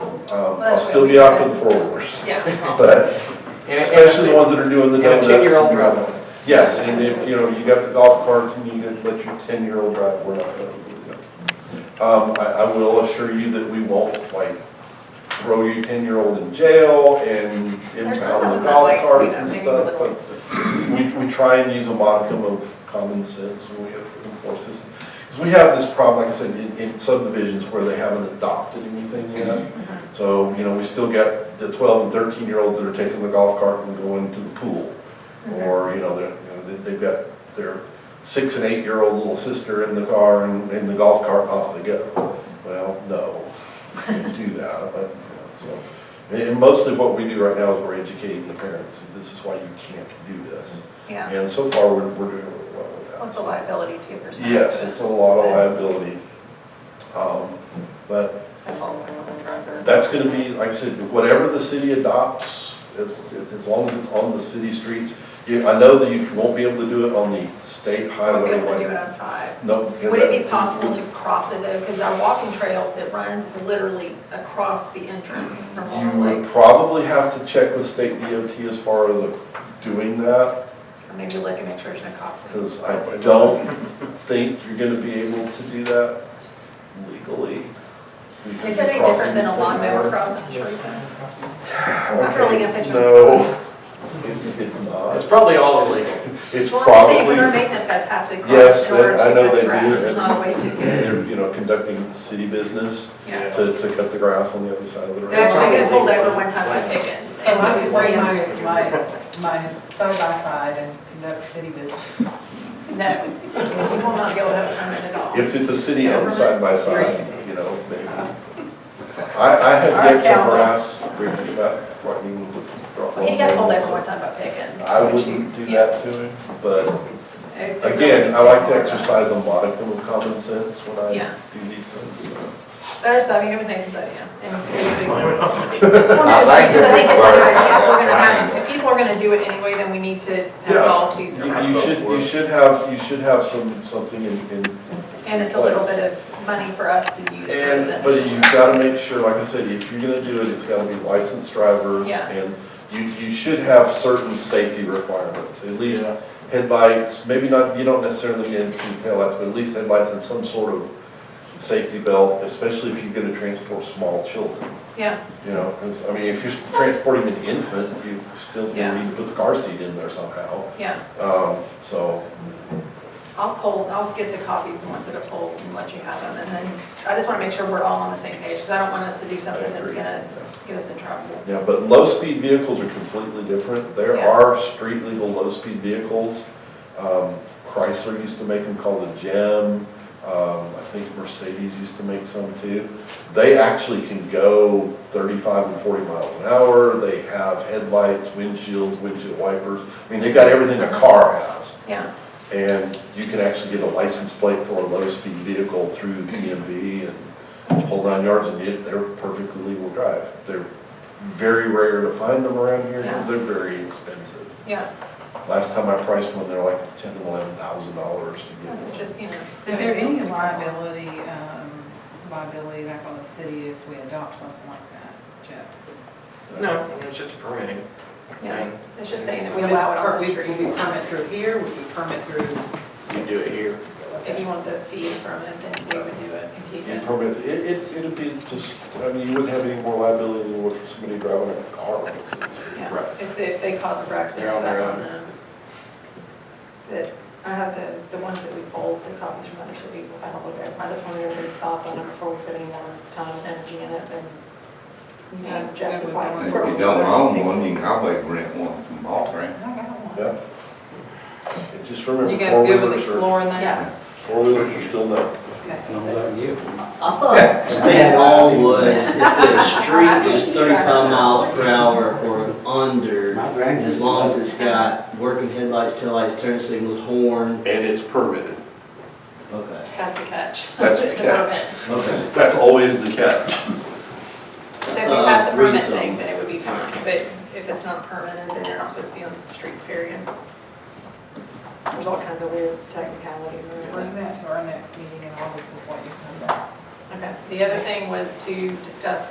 Um, Well, I'll that's still what be we off said. to the four-wheelers, Yeah. but And- and especially the ones that are doing the And a double deckers. 10-year-old driveway. Yes, and if, you know, you got the golf carts and you could let your ten-year-old drive, we're not gonna do that. Um, I, I will assure you that we won't, like, throw your ten-year-old in jail and There's some impound the of them that golf like, you carts know, and maybe stuff, little- but we, we try and use a modicum of common sense when we enforce this. Because we have this problem, like I said, in, in subdivisions where they haven't adopted anything yet. Mm-hmm. So, you know, we still got the twelve and thirteen-year-olds that are taking the golf cart and going to the pool. Mm-hmm. Or, you know, they're, you know, they- they've got their six and eight-year-old little sister in the car and in the golf cart, and off they go. Well, no, don't do that, but, you know, so. And mostly what we do right now is we're educating the parents, this is why you can't do this. Yeah, And so far, we're, we're doing really well with that. what's the liability to your son? Yes, it's a lot of liability. Um, But that's gonna be, like I said, whatever the city adopts, as, as long as it's on the city streets. You, I know that you won't be able to do it on the state Would be highway. able to do it one. on five. No. because Would it be that- possible to cross it though? Because our walking trail that runs is literally across the entrance from You Long would Lake. probably have to check with state DOT as far as doing that, Or Maybe look and make sure there's no cops. because I don't think you're gonna be able to do that legally. Is that any different than a lawnmower crossing the street? I'm really gonna picture No, it's, it's It's not. probably all illegal. It's Well, I'm saying, because our probably, maintenance guys have to Yes, cross in order to I- I know cut the they do, grass. There's and- not a way to, they're, you know, conducting city business. yeah. to, to cut the grass on the other side of the road. They actually got pulled over one time by Pickens. So I would bring my, No, my, my side-by-side and conduct city business. we will not be able to have a permit at all. If it's a city owned side by side, you know, maybe. Uh-huh. I, I Our have yet to council. harass Ricky about threatening to drop. Well, He got pulled over one off. time by Pickens. I wouldn't do that to him, but It- it again, really- I like to exercise a modicum of common sense when I Yeah. do these things. so. There's, I mean, it was Nathan's idea. and it's a big- Well, no, I like because I think it's the our word, idea. If we're gonna have- triangle. If people are gonna do it anyway, then we need to have Yeah. policies around You, you it. should, you should have, you should have some, something in, in And it's a little bit of money for us to use. for And, this. but you've got to make sure, like I said, if you're going to do it, it's got to be licensed drivers. Yeah. And you, you should have certain safety requirements, at least headlights, maybe not, you don't necessarily need taillights, but at least headlights and some sort of safety belt, especially if you're going to transport small children, Yeah, you know, 'cause, I mean, if you're transporting an infant, you still Yeah. need to put the car seat in there somehow. yeah. Um, so, I'll poll, I'll get the copies, the ones that are polled, and let you have them. And then I just want to make sure we're all on the same page, because I don't want us to do something that's agree. gonna get us in trouble. Yeah, but low-speed vehicles are completely different. There Yeah. are street legal low-speed vehicles. Um, Chrysler used to make them called the Gem. Um, I think Mercedes used to make some too. They actually can go thirty-five and forty miles an hour. They have headlights, windshields, windshield wipers. I mean, they've got everything a car has. Yeah, And you can actually get a license plate for a low-speed vehicle through DMV and whole nine yards, and yet they're perfectly legal drive. They're very rare to find them around here, because they're very expensive. yeah. Last time I priced one, they're like ten, eleven thousand dollars to get That's one. just, you know. Is there any liability, um, liability back on the city if we adopt something like that, Jeff? No, it's just a permitting Yeah, thing. it's just saying that we allow it on the Would we streets. permit through here, would we permit through? You do it here. If you want the fees from it, then we would do it and keep You it. permit, it, it, it'd be just, I mean, you wouldn't have any more liability than what somebody driving a car would. Yeah, Right. if, if they cause a wreck, They're that's on their back on own. them. That, I have the, the ones that we pulled, the copies from other cities, we'll kind of look at. I just want to hear everybody's thoughts on it before we put any more time and energy in it, then, you know, Yes, Jeff's that would advice. be If before we you do don't own this. one, you can always rent one from Walgreens. I got one. Yeah. And just remember, You guys good with four-wheelers are, exploring that? Yeah, four-wheelers are still no. Okay. I thought standalone was if the street is thirty-five miles per hour or under, as long as it's got working headlights, taillights, turn signals, horn. And it's permitted. Okay, that's the catch. That's the catch. permit. okay. That's always the catch. So if you Uh, pass the read permit some. thing, then it would be fine, but if it's not permanent, then you're not supposed to be on the streets, period. There's all kinds of weird technicalities in it. Bring that to our next meeting in August with what you come back. Okay, the other thing was to discuss